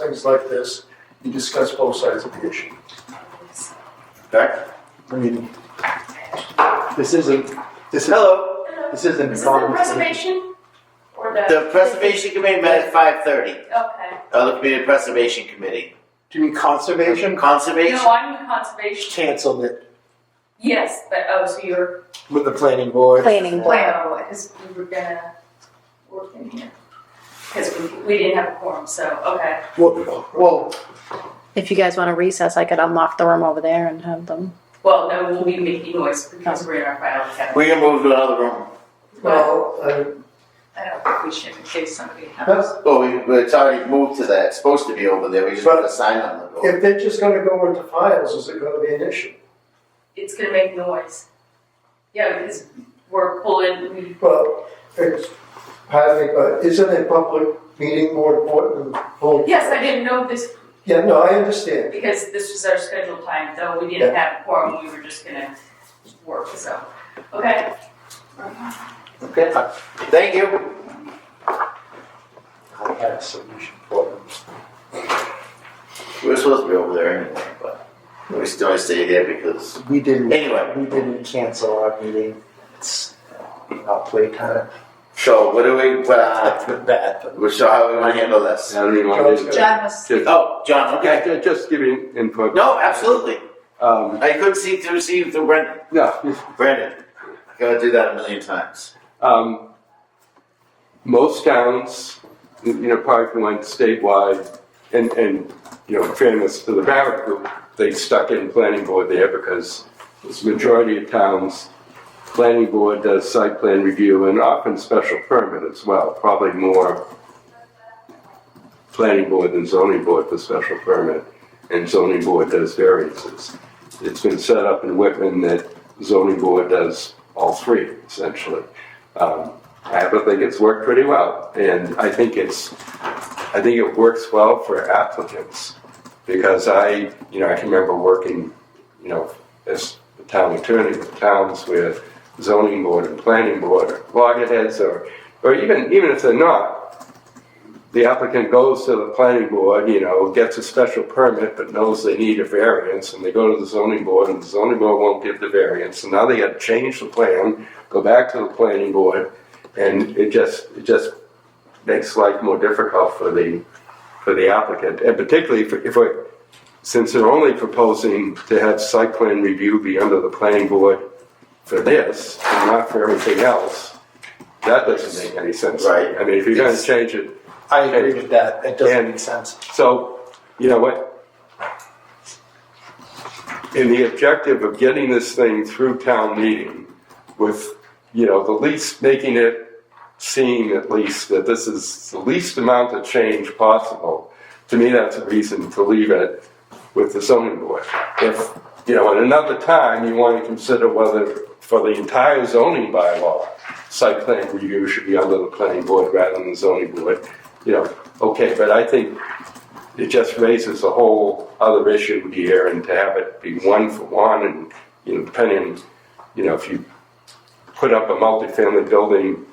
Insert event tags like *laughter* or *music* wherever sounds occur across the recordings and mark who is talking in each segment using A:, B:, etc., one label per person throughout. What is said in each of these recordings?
A: things like this, you discuss both sides of the issue.
B: Okay.
A: I mean, this isn't, this, hello, this isn't.
C: Is this the preservation? Or the?
B: The preservation committee met at five thirty,
C: Okay.
B: uh, the community preservation committee.
A: Do you mean conservation?
B: Conservation,
C: No, I'm in conservation.
A: Canceled it
C: Yes, but, oh, so you're,
A: with the planning board.
D: Planning board.
C: well, because we were gonna work in here. Because we, we didn't have a quorum, so, okay.
A: Well, well,
D: If you guys want to recess, I could unlock the room over there and have them.
C: Well, no, we'll be making noise because we're in our filing cabinet.
B: we're gonna move to another room.
A: well, uh,
C: I don't think we should in case somebody has.
A: that's-
B: Well, Oh, we, but it's already moved to that, it's supposed to be over there, we just put a sign on the door.
A: if they're just gonna go into files, is it gonna be an issue?
C: It's gonna make noise. Yeah, because we're pulling, we,
A: Well, it's, pardon me, but isn't a public meeting more important than full?
C: yes, I didn't know this
A: Yeah, no, I understand.
C: Because this was our scheduled time, though we didn't have a quorum, we were just gonna work, so, okay.
B: Okay. Thank you.
A: I had a solution for them.
B: We were supposed to be over there anyway, but we still stay here because,
E: We didn't.
B: anyway.
E: We didn't cancel our meeting. It's not playtime.
B: So what do we, what, uh, *laughs*
E: Good bad. but-
B: we- so how do we wanna handle this?
F: I don't even want to.
C: John was,
B: Oh, John, okay.
F: Okay, just giving input.
B: No, absolutely.
F: Um,
B: I couldn't see through, see through Brendan.
F: yeah,
B: Brandon, I gotta do that a million times.
F: um, most towns, you know, probably if you went statewide, and, and, you know, fairness to the Barrett group, they stuck in planning board there because this majority of towns, planning board does site plan review and often special permit as well, probably more planning board than zoning board for special permit, and zoning board does variances. It's been set up in Whitman that zoning board does all three essentially. Um, I happen to think it's worked pretty well, and I think it's, I think it works well for applicants because I, you know, I can remember working, you know, as a town attorney with towns where zoning board and planning board are loggerheads, or, or even even if they're not, the applicant goes to the planning board, you know, gets a special permit, but knows they need a variance, and they go to the zoning board, and the zoning board won't give the variance, and now they got to change the plan go back to the planning board, and it just, it just makes life more difficult for the, for the applicant, and particularly if, if we're, since they're only proposing to have site plan review be under the planning board for this, and not for everything else, that doesn't make any sense.
B: Right.
F: I mean, if you're gonna
E: It's-
F: change it,
E: I agree with that. It doesn't
F: And-
E: make sense.
F: so, you know what? In the objective of getting this thing through town meeting with, you know, the least, making it seem at least that this is the least amount of change possible, to me, that's a reason to leave it with the zoning board. If, you know, at another time, you want to consider whether for the entire zoning bylaw, site plan review should be under the planning board rather than the zoning board, you know, okay, but I think it just raises a whole other issue here, and to have it be one for one, and, you know, depending, you know, if you put up a multifamily building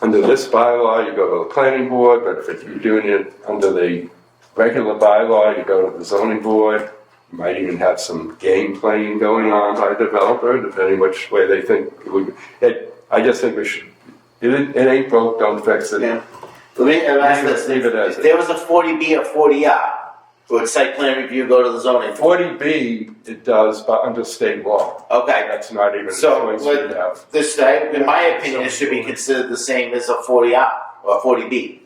F: under this bylaw, you go to the planning board, but if you're doing it under the regular bylaw, you go to the zoning board. You might even have some game playing going on by the developer, depending which way they think it would, it, I just think we should, it, ain't- it ain't broke, don't fix it.
B: Yeah. Let me ask this,
F: Leave it as
B: if
F: it-
B: there was a forty B or forty R, would site plan review go to the zoning? board?
F: Forty B, it does, but under state law,
B: Okay,
F: that's not even a
B: So,
F: choice we
B: what-
F: have.
B: this, I- in my opinion, it should be considered the same as a forty R or forty B.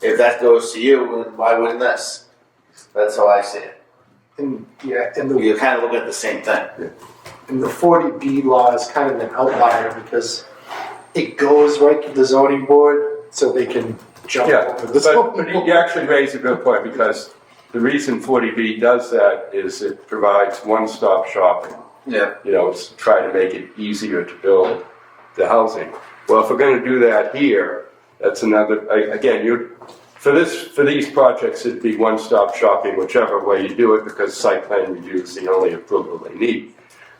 B: If that goes to you, then why wouldn't this? That's how I see it.
E: And yeah, and the
B: You're kind of looking at the same thing.
E: and the forty B law is kind of an outlier because it goes right to the zoning board, so they can jump
F: Yeah,
E: over the
F: but,
E: zoning
F: but
E: board.
F: you actually raise a good point, because the reason forty B does that is it provides one-stop shopping.
B: Yeah.
F: You know, it's try to make it easier to build the housing. Well, if we're gonna do that here, that's another, a- again, you, for this, for these projects, it'd be one-stop shopping, whichever way you do it, because site plan review is the only approval they need.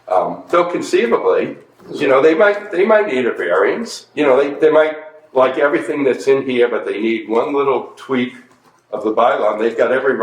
F: Um, though conceivably, you know, they might, they might need a variance, you know, they, they might like everything that's in here, but they need one little tweak of the bylaw, and they've got every